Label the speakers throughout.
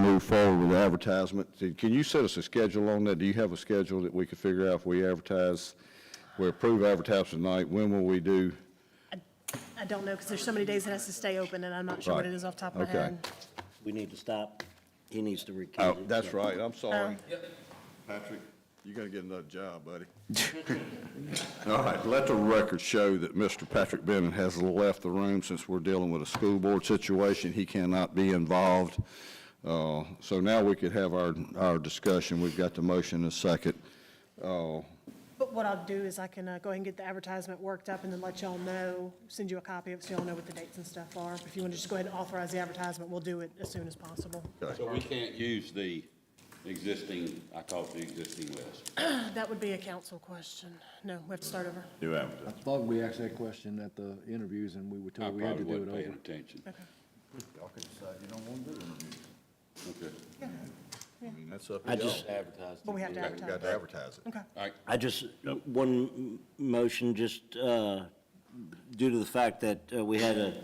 Speaker 1: move forward with advertisement, Did- can you set us a schedule on that? Do you have a schedule that we could figure out if we advertise, we approve advertisement tonight, when will we do?
Speaker 2: I don't know, because there's so many days it has to stay open, and I'm not sure what it is off the top of my
Speaker 1: Right, okay.
Speaker 2: head.
Speaker 3: We need to stop. He needs to recuse.
Speaker 1: Oh,
Speaker 3: himself.
Speaker 1: that's right, I'm sorry. Patrick, you're gonna get another job, buddy. All right, let the record show that Mr. Patrick Bennett has left the room since we're dealing with a school board situation. He cannot be involved. Uh, So now we could have our, our discussion. We've got the motion and second.
Speaker 2: But what I'll do is I can uh, go ahead and get the advertisement worked up and then let y'all know, send you a copy of it so y'all know what the dates and stuff are. If you want to just go ahead and authorize the advertisement, we'll do it as soon as possible.
Speaker 4: So we can't use the existing, I call it the existing list.
Speaker 2: That would be a council question. No, we have to start over.
Speaker 4: New advertising.
Speaker 5: I thought we asked that question at the interviews and we were
Speaker 4: I
Speaker 5: told we had
Speaker 4: probably
Speaker 5: to do it
Speaker 4: wasn't paying
Speaker 5: over.
Speaker 4: attention.
Speaker 2: Okay.
Speaker 4: Okay.
Speaker 3: I just,
Speaker 2: But we have to advertise.
Speaker 1: to advertise it.
Speaker 2: Okay.
Speaker 4: All right,
Speaker 3: I just, one m- motion, just uh, due to the fact that uh, we had a,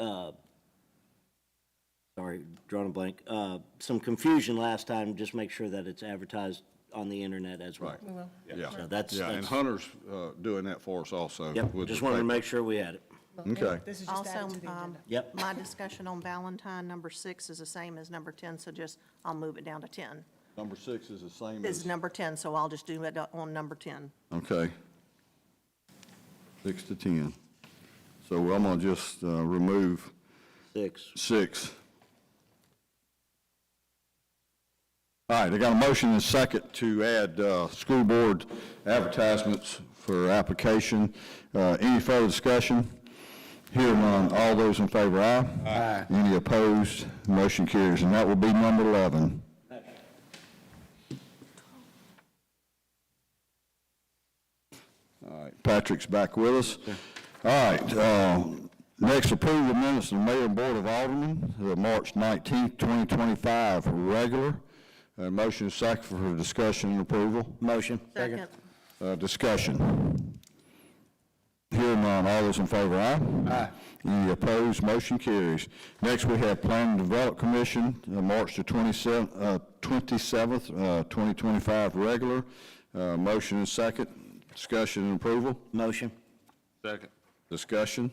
Speaker 3: uh, sorry, drawn a blank, uh, some confusion last time, just make sure that it's advertised on the internet as well.
Speaker 1: Right.
Speaker 2: We will.
Speaker 1: Yeah.
Speaker 3: So that's-
Speaker 1: Yeah, and
Speaker 3: that's-
Speaker 1: Hunter's uh, doing that for us also.
Speaker 3: Yep,
Speaker 1: with the
Speaker 3: just wanted to
Speaker 1: paper.
Speaker 3: make sure we had it.
Speaker 1: Okay.
Speaker 2: This is just
Speaker 6: Also,
Speaker 2: added to the
Speaker 6: um,
Speaker 2: agenda.
Speaker 3: Yep.
Speaker 6: my discussion on Valentine, number six is the same as number 10, so just, I'll move it down to 10.
Speaker 1: Number six is the same
Speaker 6: This is
Speaker 1: as.
Speaker 6: number 10, so I'll just do it on number 10.
Speaker 1: Okay. Six to 10. So I'm gonna just uh, remove
Speaker 3: Six.
Speaker 1: six. All right, I got a motion and second to add uh, school board advertisements for application. Uh, Any further discussion? Hearing none, all those in favor, aye? Aye. Any opposed? Motion carries, and that will be number 11. All right, Patrick's back with us. All right, uh, next, approve the minutes of the mayor and board of aldermen, the March 19th, 2025, regular. Uh, Motion is second for discussion and approval.
Speaker 3: Motion.
Speaker 6: Second.
Speaker 1: Uh, Discussion. Hearing none, all those in favor, aye? Aye. Any opposed, motion carries. Next, we have Plan and Develop Commission, uh, March the 27th, uh, 27th, uh, 2025, regular. Uh, Motion is second, discussion and approval.
Speaker 3: Motion.
Speaker 4: second.
Speaker 1: Discussion?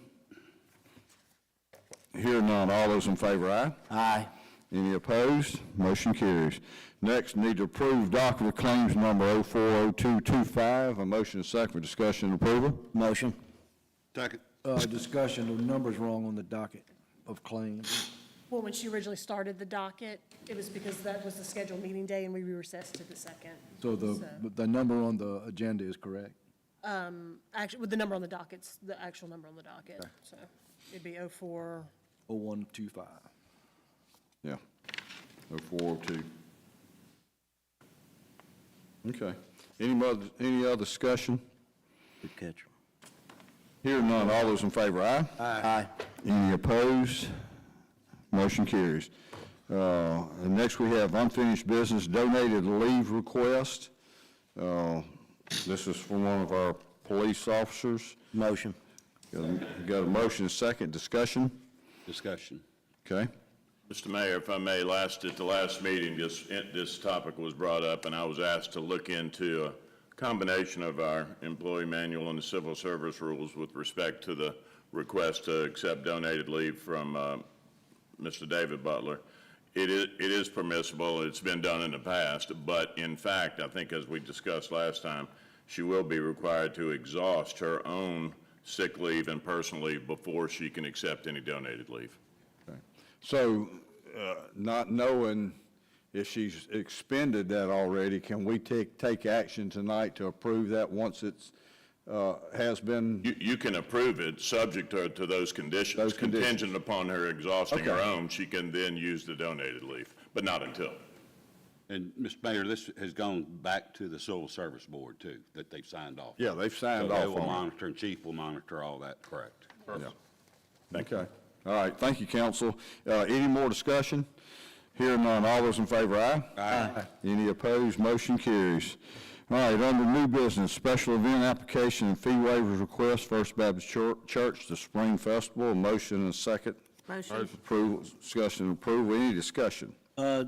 Speaker 1: Hearing none, all those in favor, aye?
Speaker 3: Aye.
Speaker 1: Any opposed? Motion carries. Next, need to approve docket of claims number 040225. A motion is second for discussion and approval.
Speaker 3: Motion.
Speaker 4: Second.
Speaker 5: Uh, discussion, the number's wrong on the docket of claims.
Speaker 2: Well, when she originally started the docket, it was because that was the scheduled meeting day and we recessed to the second.
Speaker 5: So the, the number on the agenda is correct.
Speaker 2: Actually, with the number on the docket's the actual number on the docket, so it'd be oh four.
Speaker 5: Oh, one, two, five.
Speaker 1: Yeah. 0402. Okay. Any other, any other discussion?
Speaker 3: Good catch.
Speaker 1: Hearing none, all those in favor, aye?
Speaker 3: Aye.
Speaker 1: Any opposed? Motion carries. Uh, And next, we have unfinished business donated leave request. Uh, This is from one of our police officers.
Speaker 3: Motion.
Speaker 1: Got a- Got a motion, a second, discussion?
Speaker 4: Discussion.
Speaker 1: Okay.
Speaker 7: Mr. Mayor, if I may, last, at the last meeting, this, this topic was brought up, and I was asked to look into a combination of our employee manual and the civil service rules with respect to the request to accept donated leave from uh, Mr. David Butler. It is, it is permissible, it's been done in the past, but in fact, I think as we discussed last time, she will be required to exhaust her own sick leave and personal leave before she can accept any donated leave.
Speaker 1: So, uh, not knowing if she's expended that already, can we take, take action tonight to approve that once it's, uh, has been
Speaker 7: You, you can approve it, subject to, to those conditions.
Speaker 1: Those conditions.
Speaker 7: Contingent upon her exhausting her
Speaker 1: Okay.
Speaker 7: own, she can then use the donated leave, but not until.
Speaker 4: And, Mr. Mayor, this has gone back to the Civil Service Board, too, that they've signed off.
Speaker 1: Yeah, they've signed off
Speaker 4: So they will
Speaker 1: on it.
Speaker 4: monitor, and chief will monitor all that, correct?
Speaker 1: Okay. All right, thank you, council. Uh, Any more discussion? Hearing none, all those in favor, aye? Aye. Any opposed, motion carries. All right, under new business, special event application and fee waivers request, First Baptist Chur- Church, the Spring Festival, motion and second.
Speaker 6: Motion.
Speaker 1: Approval, discussion and approval, any discussion?
Speaker 3: Uh,